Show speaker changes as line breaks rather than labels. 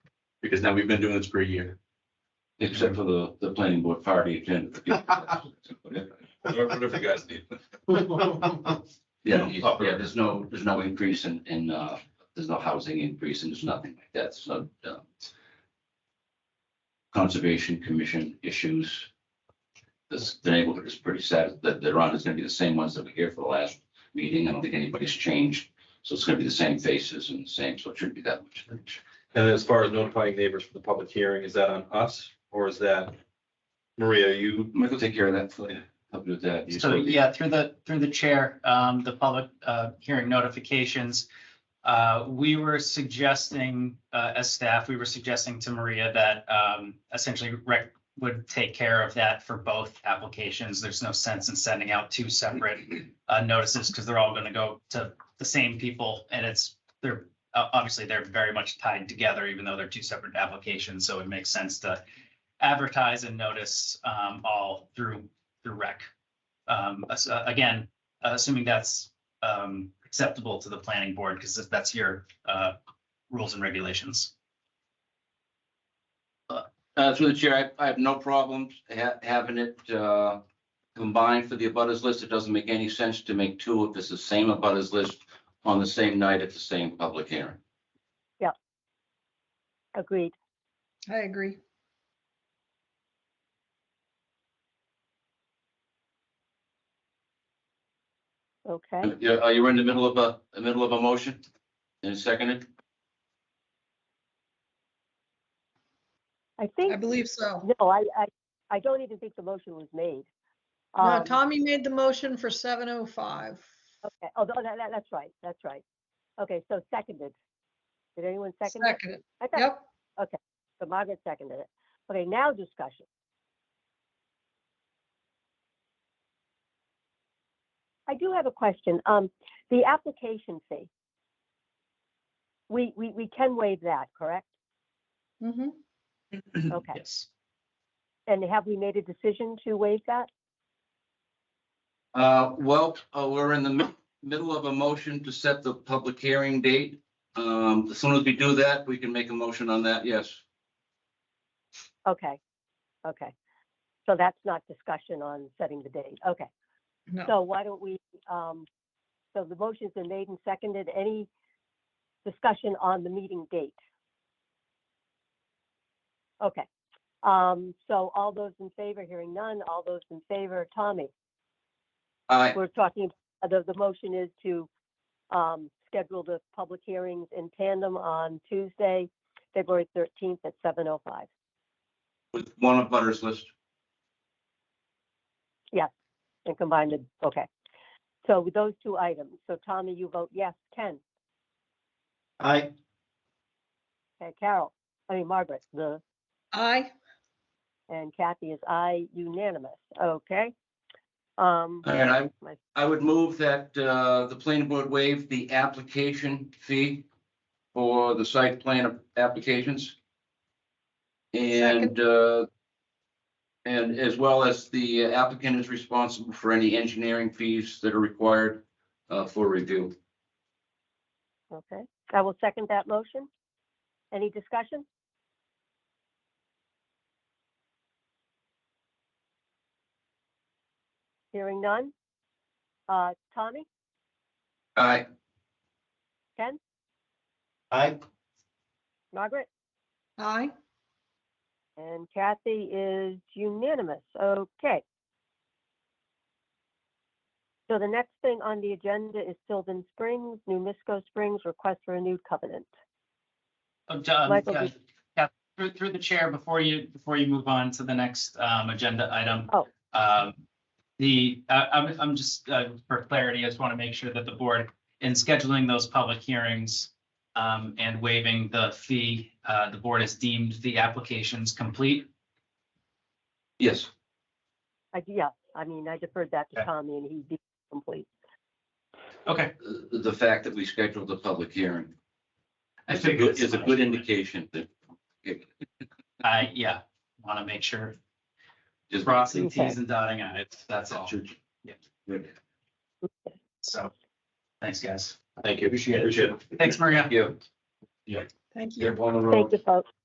because now we've been doing this for a year.
Except for the, the planning board party agenda.
Whatever you guys need.
Yeah, Oh, yeah, there's no, there's no increase in, in, uh, there's no housing increase and there's nothing like that, so, uh, Conservation Commission issues. This, the neighborhood is pretty sad that they're on, it's gonna be the same ones that were here for the last meeting, I don't think anybody's changed. So it's gonna be the same faces and the same, so it shouldn't be that much.
And as far as notifying neighbors for the public hearing, is that on us or is that? Maria, you,
Michael, take care of that, for you. help you with that. You
So,
spoke-
yeah, through the, through the chair, um, the public, uh, hearing notifications. Uh, we were suggesting, uh, as staff, we were suggesting to Maria that, um, essentially rec would take care of that for both applications. There's no sense in sending out two separate, uh, notices because they're all going to go to the same people and it's, they're, uh, obviously they're very much tied together, even though they're two separate applications. So it makes sense to advertise and notice, um, all through, through rec. Um, as- uh, again, uh, assuming that's, um, acceptable to the planning board, because that's your, uh, rules and regulations.
Uh, through the chair, I, I have no problems ha- having it, uh, combined for the abutters list. It doesn't make any sense to make two if it's the same abutters list on the same night at the same public hearing.
Agreed.
I agree.
Okay.
Yeah, are you Uh, in the middle of a, the middle of a motion? And seconded?
I
I
think,
believe so.
no, I, I, I don't even think the motion was made.
No,
Um,
Tommy made the motion for seven oh five.
Okay, oh, that, that- that's right, that's right. Okay, so seconded. Did anyone second it?
Second,
I thought-
yep.
So Margaret seconded it. Okay, now discussion. I do have a question. Um, the application fee. We, we, we can waive that, correct?
Mhm.
Okay.
Yes.
And have we made a decision to waive that?
Uh, well, uh, we're in the mi- middle of a motion to set the public hearing date. Um, as soon as we do that, we can make a motion on that, yes.
Okay, okay. So that's not discussion on setting the date. Okay,
No,
so why don't we, um, so the motion's been made and seconded. Any discussion on the meeting date? Okay, um, so all those in favor, hearing none, all those in favor, Tommy,
I,
we're talking, uh, the, the motion is to, um, schedule the public hearings in tandem on Tuesday, February thirteenth at seven oh five.
with one abutters list.
And combine the, okay. So with those two items, so Tommy, you vote yes, Ken,
I.
okay, Carol, I mean Margaret, the,
I,
and Kathy is I unanimous, okay? Um,
All right,
my-
I, I would move that, uh, the planning board waive the application fee for the site plan applications. And, uh, and as well as the applicant is responsible for any engineering fees that are required, uh, for review.
okay, I will second that motion. Any discussion? Hearing none. Uh, Tommy,
I,
Ken,
I.
Margaret?
I,
And Kathy is unanimous. Okay. So the next thing on the agenda is Sylvan Springs, New Misco Springs, request for a new covenant.
Oh, John,
Michael,
yeah,
did-
yeah, through, through the chair, before you, before you move on to the next, um, agenda item.
Oh.
Um, the, I, I'm, I'm just, uh, for clarity, I just want to make sure that the board, in scheduling those public hearings, um, and waiving the fee, uh, the board has deemed the applications complete.
yes,
I, yeah, I mean, I deferred that to
Okay.
Tommy and he did complete.
Okay.
the, the fact that we scheduled the public hearing
I
is a
figured
good, is a
as
good
much.
indication that
I, yeah, want to make sure,
just.
crossing
Okay.
Ts and dotting Is, that's all. So, thanks, guys.
thank you. Appreciate it.
Thanks, Maria.
Yeah.
thank you.
You're on the
Thank you, folks.